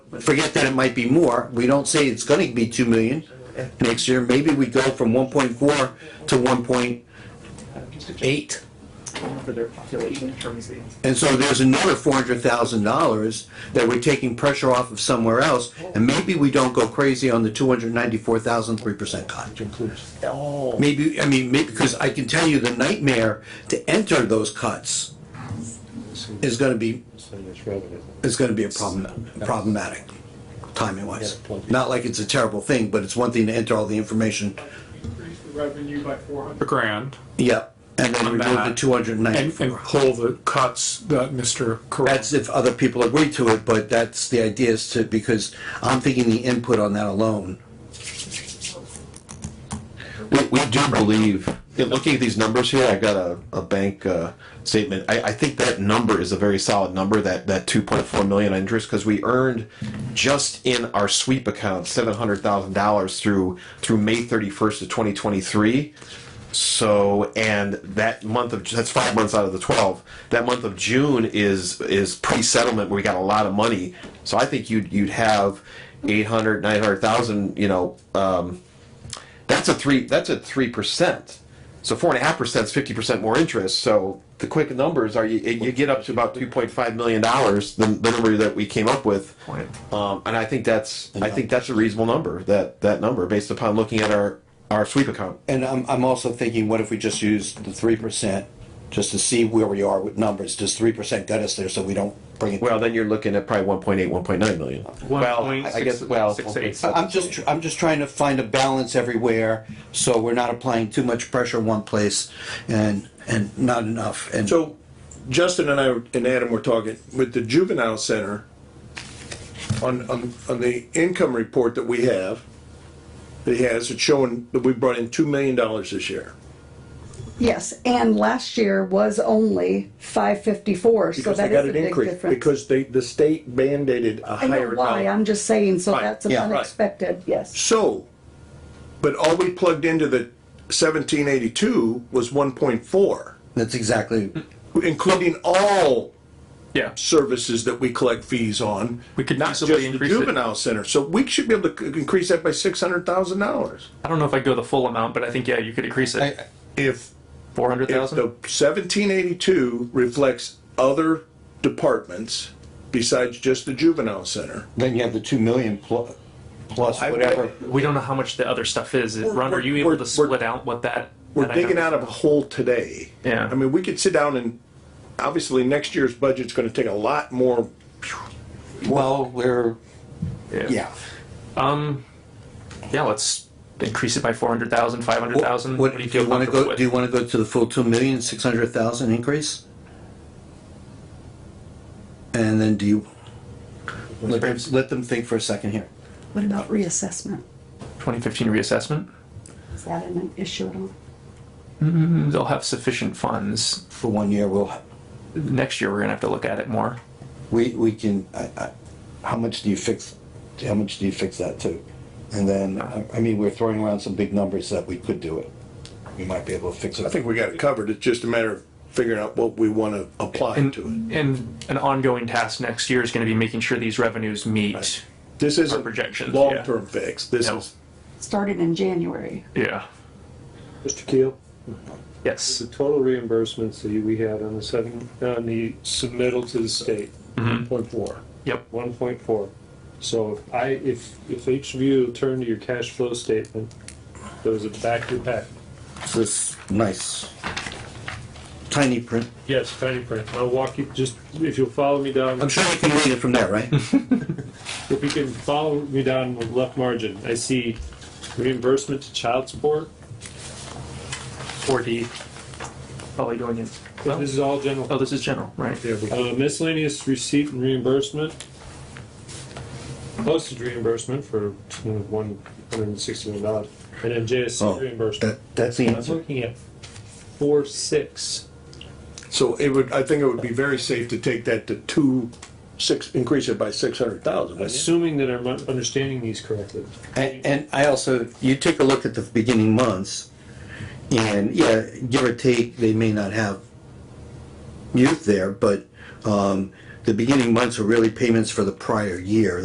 forget that it might be more, we don't say it's gonna be two million next year, maybe we go from one point four to one point eight. for their population in terms of these. And so there's another four hundred thousand dollars that we're taking pressure off of somewhere else, and maybe we don't go crazy on the two hundred ninety-four thousand three percent cut. Oh. Maybe, I mean, maybe, because I can tell you the nightmare to enter those cuts is gonna be, is gonna be a problem, problematic, timing wise. Not like it's a terrible thing, but it's one thing to enter all the information, increase the revenue by four hundred a grand yep, and then On remove the that. two hundred and and, and ninety-four. pull the cuts that Mr. Corral. That's if other people agree to it, but that's, the idea is to, because I'm thinking the input on that alone. We, we do believe, in looking at these numbers here, I got a, a bank uh, statement. I, I think that number is a very solid number, that, that 2.4 million interest, because we earned just in our sweep account $700,000 through, through May 31st of 2023. So, and that month of, that's five months out of the 12. That month of June is, is pre-settlement where we got a lot of money. So I think you'd, you'd have 800, 900,000, you know, um, that's a three that's a three percent so four and a half percent is 50 percent more interest so the quick numbers are you, you get up to about 2.5 million dollars the, the number that we came up with um, and i think that's i think that's a reasonable number that that number based upon looking at our our sweep account And I'm, I'm also thinking, what if we just use the three percent, just to see where we are with numbers, does three percent get us there so we don't bring it? well then you're looking at probably 1.8 1.9 million well i I guess well 1.68. I'm just, tr- I'm just trying to find a balance everywhere, so we're not applying too much pressure one place and, and not enough, and. So Justin and I and Adam were talking with the juvenile center on, on, on the income report that we have, that he has, it's showing that we brought in two million dollars this year. Yes, and last year was only five fifty-four, so Because they that is got a an big increase, difference. because they, the state mandated a I know higher why, amount. I'm just saying, so Right, that's yeah. Right. unexpected, yes. So, but all we plugged into the seventeen eighty-two was one point four, That's exactly, including all Yeah, services that we collect fees on. we could Not easily just the increase it. juvenile center, so we should be able to c- increase that by six hundred thousand dollars. I don't know if I'd go the full amount, but I think, yeah, you could increase I- it. If, Four hundred if thousand? the seventeen eighty-two reflects other departments besides just the juvenile center. then you have the two million plus, plus whatever. We don't know how much the other stuff is. Ron, are you we're- able to we're- split out what that? We're that digging item out is? of a hole today. Yeah. I mean, we could sit down and, obviously, next year's budget's gonna take a lot more, Well, we're, yeah. Um, Yeah, let's increase it by four hundred thousand, five hundred thousand. What, do you wanna go, do you wanna go to the full two million, six hundred thousand increase? And then do you, let them, let them think for a second here. What about reassessment? Twenty fifteen reassessment? Is that an issue at all? They'll have sufficient funds. for one year, we'll, Next year, we're gonna have to look at it more. we, we can, I, I, how much do you fix, how much do you fix that to? And then, I I mean, we're throwing around some big numbers that we could do it. We might be able to fix it. I think we got it covered, it's just a matter of figuring out what we wanna apply And, to it. and an ongoing task next year is gonna be making sure these revenues meet. This isn't projections, yeah. long-term fix, this No. is. Started in January. Yeah, Mr. Keel, yes. the total reimbursements that we had on the seven, on the submittal to the state, one point four. Yep. One point four. So if I, if, if each of you turn to your cash flow statement, those are back to back. This is nice. Tiny print. Yes, tiny print. I'll walk you, just, if you'll follow me down. I'm sure you can read it from there, right? If you can follow me down the left margin, I see reimbursement to child support. Four D. Probably going in. This is all general. Oh, this is general, right? Uh, miscellaneous receipt and reimbursement. Postage reimbursement for one hundred and sixty-one dollars, and then Oh, JSC reimbursement. that- That's the I'm answer. looking at four, six. So it would, I think it would be very safe to take that to two, six, increase it by six hundred thousand, Assuming that I'm understanding these correctly. And, and I also, you take a look at the beginning months, and yeah, give or take, they may not have youth there, but, um, the beginning months are really payments for the prior year.